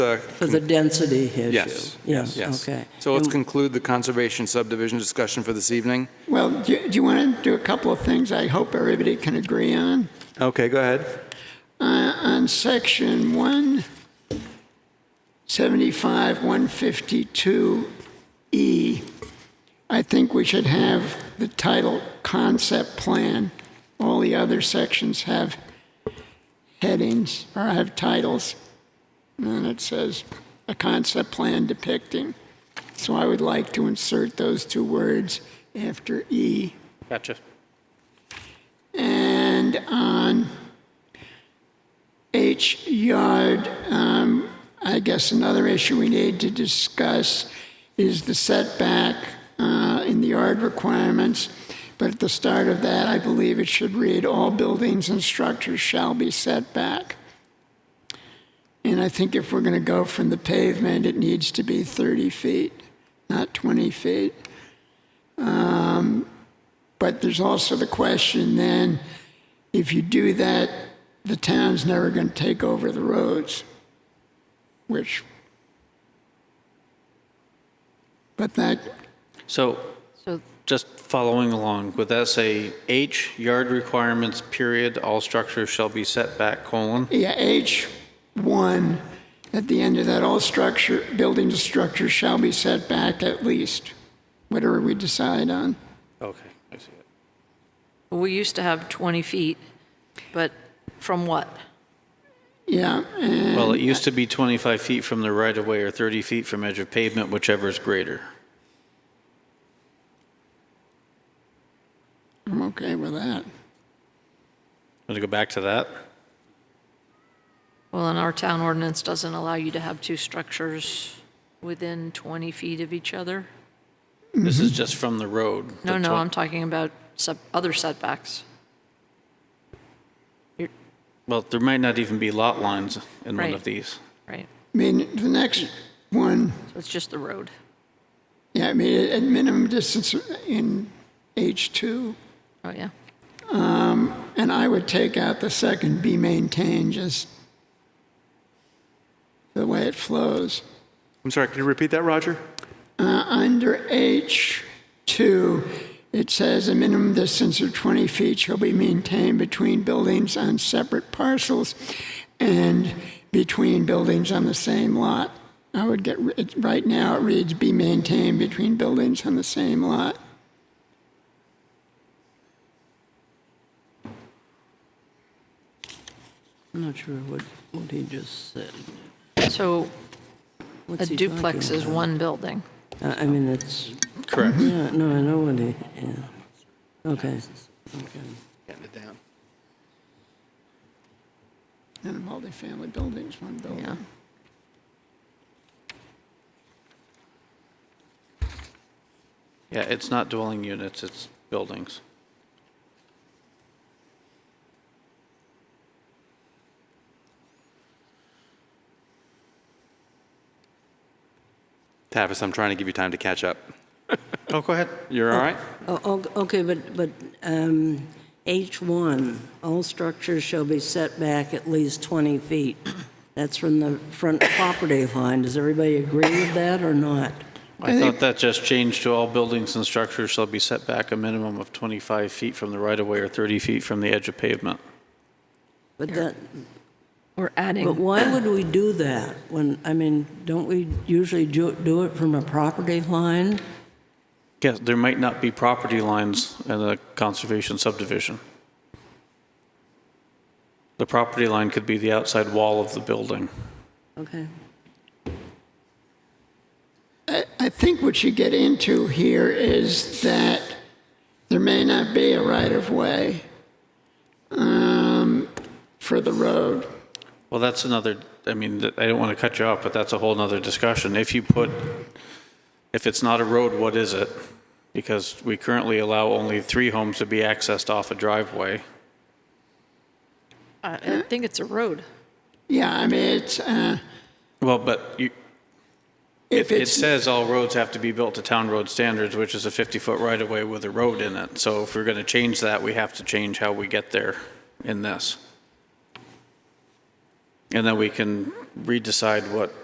the For the density issue? Yes. Yes, Yes. okay. So let's And- conclude the conservation subdivision discussion for this evening. Well, do do you want to do a couple of things I hope everybody can agree on? Okay, go ahead. Uh, On section 175, 152E, E, I think we should have the title concept plan. All the other sections have headings or have titles. And then it says a concept plan depicting. So I would like to insert those two words after E. Gotcha. And on H yard, um, I guess another issue we need to discuss is the setback uh, in the yard requirements. But at the start of that, I believe it should read, "All buildings and structures shall be set back." And I think if we're going to go from the pavement, it needs to be 30 feet, not 20 feet. Um, But there's also the question then, if you do that, the town's never going to take over the roads, which, but that, So So just following along, would that say H, yard requirements, period, all structures shall be set back, colon? yeah, H1, at the end of that, all structure, buildings and structures shall be set back at least, whatever we decide on. Okay, I see it. we used to have 20 feet, but from what? Yeah, and Well, it used to be 25 feet from the right-of-way or 30 feet from edge of pavement, whichever is greater. I'm okay with that. Want to go back to that? Well, and our town ordinance doesn't allow you to have two structures within 20 feet of each other. This is just from the road. Mm-hmm. No, the no, twen- I'm talking about sub- other setbacks. You're- Well, there might not even be lot lines in one Right. of these. Right, I mean, the next one, so it's just the road. yeah, I mean, at minimum distance in H2, Oh, yeah. And I would take out the second be maintained, just the way it flows. I'm sorry, can you repeat that, Roger? Uh, under H2, it says a minimum distance of 20 feet shall be maintained between buildings on separate parcels and between buildings on the same lot. I would get, ri- it- right now it reads be maintained between buildings on the same lot. I'm not sure what, what he just said. So a What's he talking duplex is about? one building. I I mean, it's, Correct. yeah, no, I know what he, yeah, okay. And a multifamily buildings, one building. Yeah. Yeah, it's not dwelling units, it's buildings. Tavis, I'm trying to give you time to catch up. Oh, go ahead. You're all right? Oh, o- Okay, but, but um, H1, all structures shall be set back at least 20 feet. That's from the front property line. Does everybody agree with that or not? I thought that just changed to all buildings and structures shall be set back a minimum of 25 feet from the right-of-way or 30 feet from the edge of pavement. But that, We're but adding, why would we do that when, I mean, don't we usually do do it from a property line? Yes, there might not be property lines in a conservation subdivision. The property line could be the outside wall of the building. Okay. I, I think what you get into here is that there may not be a right of way um, for the road. Well, that's another, I mean, th- I don't want to cut you off, but that's a whole nother discussion. If you put, if it's not a road, what is it? Because we currently allow only three homes to be accessed off a driveway. I I think it's a road. Yeah, I mean, it's, uh, Well, but you, if it, it it's, says all roads have to be built to town road standards, which is a 50-foot right-of-way with a road in it. So if we're going to change that, we have to change how we get there in this. And then we can redecide what